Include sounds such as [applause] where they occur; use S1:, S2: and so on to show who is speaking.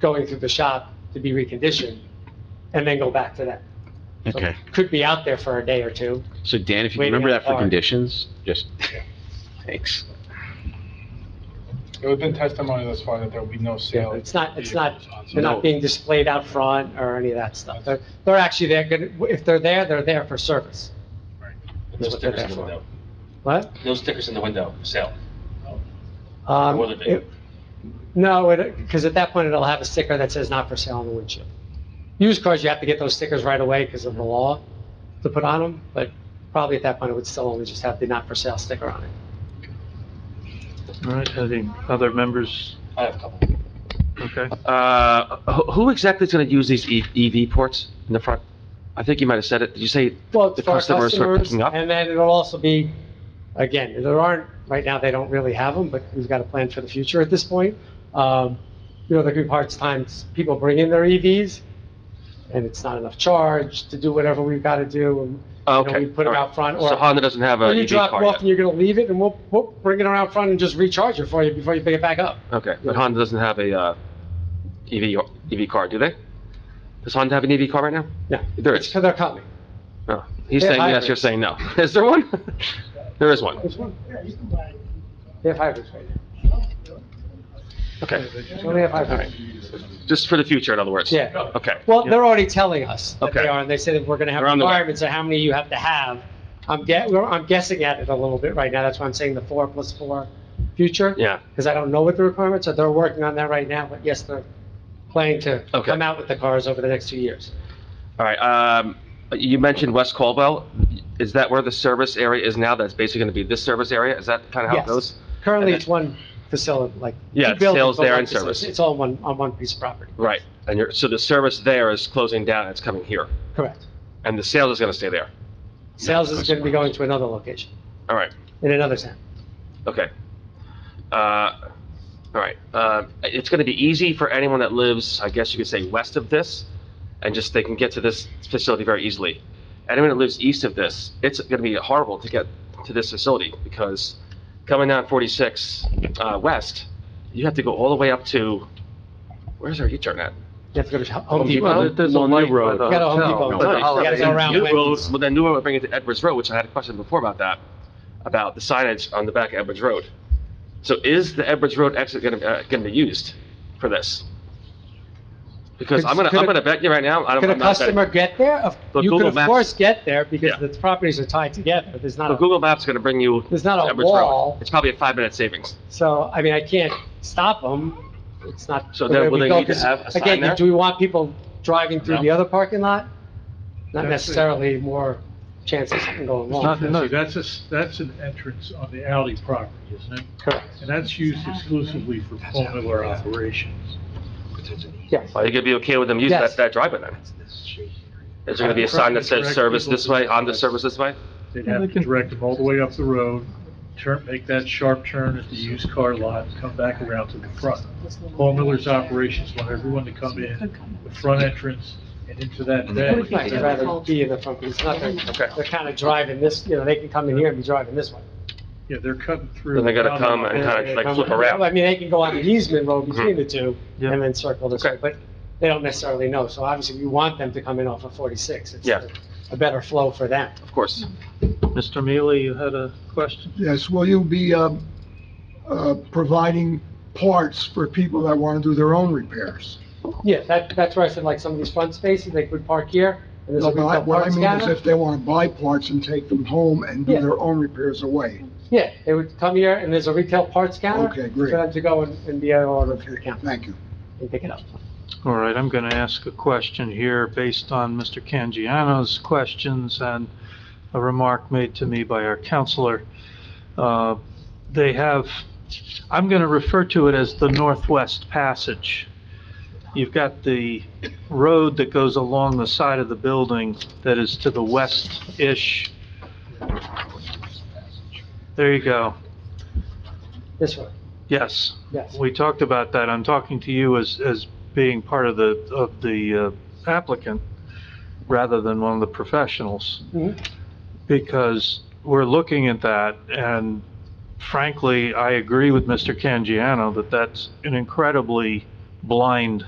S1: going through the shop to be reconditioned and then go back to that. So
S2: Okay,
S1: it Could be out there for a day or two.
S2: so Dan, if you
S1: Waiting
S2: remember
S1: on
S2: that for
S1: card.
S2: conditions,
S3: [laughs]
S2: just, thanks.
S4: There have been testimony thus far that there will be no sale.
S1: It's not- it's not-
S4: vehicles on-
S1: They're
S2: No.
S1: not being displayed out front or any of that stuff. They're, they're actually, they're gonna, if they're there, they're there for service.
S5: No
S1: That's what they're
S5: stickers in
S1: there
S5: the
S1: for.
S5: window.
S1: What?
S5: No stickers in the window, for sale.
S1: Um,
S5: Or will it be?
S1: it- No, it, because at that point, it'll have a sticker that says not for sale on the windshield. Used cars, you have to get those stickers right away because of the law to put on them, but probably at that point, it would still only just have the not for sale sticker on it.
S3: All right, any other members?
S5: I have a couple.
S3: Okay.
S2: Uh, who- who exactly is going to use these E- EV ports in the front? I think you might have said it, did you say,
S1: Well, it's
S2: The
S1: for our
S2: customers are
S1: customers,
S2: picking up?
S1: and then it'll also be, again, there aren't, right now, they don't really have them, but we've got a plan for the future at this point. Um, You know, there could be parts times people bring in their EVs, and it's not enough charge to do whatever we've got to do, and, you know,
S2: Oh, okay.
S1: we put them
S2: all right.
S1: out front,
S2: So E
S1: or
S2: Honda doesn't have
S1: when
S2: an
S1: you
S2: EV
S1: drop it
S2: car
S1: off and
S2: yet?
S1: you're gonna leave it, and we'll, we'll bring it around front and just recharge it for you before you pick it back up.
S2: Okay, but Honda doesn't have a, uh, EV, or- EV car, do they? Does Honda have an EV car right now?
S1: No.
S2: There
S1: It's
S2: is,
S1: because they're coming.
S2: no. He's
S1: They're
S2: saying yes,
S1: hybrids.
S2: you're saying no. [laughs] Is there one? There is one.
S1: There's one. They have hybrids right now.
S2: Okay,
S1: They only have hybrids.
S2: just for the future, in other words?
S1: Yeah.
S2: Okay.
S1: Well, they're already telling us that they
S2: Okay.
S1: are, and they said that we're gonna have
S2: They're on the way.
S1: requirements of how many you have to have. I'm get, well, I'm guessing at it a little bit right now, that's why I'm saying the four plus four future.
S2: Yeah,
S1: Because I don't know what the requirements are, they're working on that right now, but yes, they're planning to
S2: Okay.
S1: come out with the cars over the next two years.
S2: all right, um, you mentioned West Caldwell. Is that where the service area is now? That's basically gonna be this service area? Is that kind of how it
S1: Yes.
S2: goes?
S1: Currently,
S2: And
S1: it's one facility, like.
S2: Yeah,
S1: two
S2: it's
S1: buildings,
S2: sales
S1: but
S2: there
S1: one
S2: and
S1: facility.
S2: service.
S1: It's all one, on one piece of property,
S2: Right, and you're, so the service there is closing down, it's coming here,
S1: correct.
S2: and the sales is gonna stay there?
S1: Sales is gonna be going to another location,
S2: All right,
S1: in another town.
S2: okay. Uh, all right, uh, it's gonna be easy for anyone that lives, I guess you could say, west of this, and just, they can get to this facility very easily. Anyone that lives east of this, it's gonna be horrible to get to this facility, because coming down 46, uh, west, you have to go all the way up to, where's our U-turn at?
S1: You have to go to Home
S3: Well,
S1: Depot.
S3: there's a light by the
S1: You gotta Home
S3: hotel.
S1: Depot.
S2: No, no,
S1: You gotta go around
S2: New
S1: Wendy's.
S2: Road- Well, then New Road would bring it to Edwards Road, which I had a question before about that, about the signage on the back of Edwards Road. So is the Edwards Road exit gonna, uh, gonna be used for this? Because I'm gonna,
S1: Could-
S2: I'm gonna bet you right now, I don't,
S1: Could a
S2: I'm not betting.
S1: customer get there? Of-
S2: But
S1: You
S2: Google
S1: could of
S2: Maps-
S1: course get there because
S2: Yeah.
S1: the properties are tied together. There's not
S2: So
S1: a,
S2: Google Maps is gonna bring you to
S1: there's not a
S2: Edwards Road.
S1: wall,
S2: It's probably a five-minute savings.
S1: so, I mean, I can't stop them. It's not.
S2: So
S1: the
S2: then
S1: way
S2: will
S1: we
S2: they
S1: go,
S2: need to
S1: 'cause,
S2: have a sign
S1: again,
S2: there?
S1: do we want people driving through
S5: No.
S1: the other parking lot? Not
S6: That's it.
S1: necessarily more chance of something going
S3: not-
S1: wrong.
S3: no.
S6: See, that's a, s- that's an entrance on the alley property, isn't it?
S1: Correct.
S6: And that's used exclusively for Palmer operations.
S1: Yes.
S6: uh,
S2: Are you gonna be okay with them using
S1: Yes.
S2: that, that driveway then? Is there gonna be a sign that says
S6: Correct.
S2: service this way, Honda service this way?
S6: They'd have to direct them all the way up the road, turn, make that sharp turn at the used car lot, and come back around to the front. Paul Miller's operations want everyone to come in, the front entrance and into that
S1: I'd
S6: bay.
S1: rather be in the front, because it's not,
S2: Okay.
S1: they're, they're kind of driving this, you know, they can come in here and be driving this way.
S6: Yeah, they're cutting through.
S2: Then they gotta
S6: down
S2: come
S6: on
S2: and
S6: the-
S2: kinda like flip
S1: I
S2: around.
S1: mean, they can go on the easement road between
S2: Mhm.
S1: the two
S3: Yeah.
S1: and then circle this way,
S2: Okay.
S1: but they don't necessarily know. So obviously, we want them to come in off of 46. It's
S2: Yeah.
S1: A better flow for them.
S2: Of course.
S3: Mr. Mealy, you had a question?
S7: Yes, will you be um, uh, providing parts for people that want to do their own repairs?
S1: Yeah, that, that's where I said, like, some of these front spaces, they could park here, and there's a
S7: No, I-
S1: retail
S7: What I
S1: parts
S7: mean is
S1: counter.
S7: if they want to buy parts and take them home and do
S1: Yeah.
S7: their own repairs away.
S1: Yeah, they would come here, and there's a retail parts counter.
S7: Okay, great.
S1: For them to go and, and be able to order through the counter
S7: Thank you.
S1: and pick it up.
S3: All right, I'm going to ask a question here based on Mr. Cangiano's questions and a remark made to me by our counselor. Uh, They have, I'm going to refer to it as the Northwest Passage. You've got the road that goes along the side of the building that is to the west-ish. There you go.
S1: This way,
S3: Yes.
S1: yes.
S3: We talked about that. I'm talking to you as, as being part of the, of the uh, applicant rather than one of the professionals.
S1: Mhm.
S3: Because we're looking at that and frankly, I agree with Mr. Cangiano that that's an incredibly blind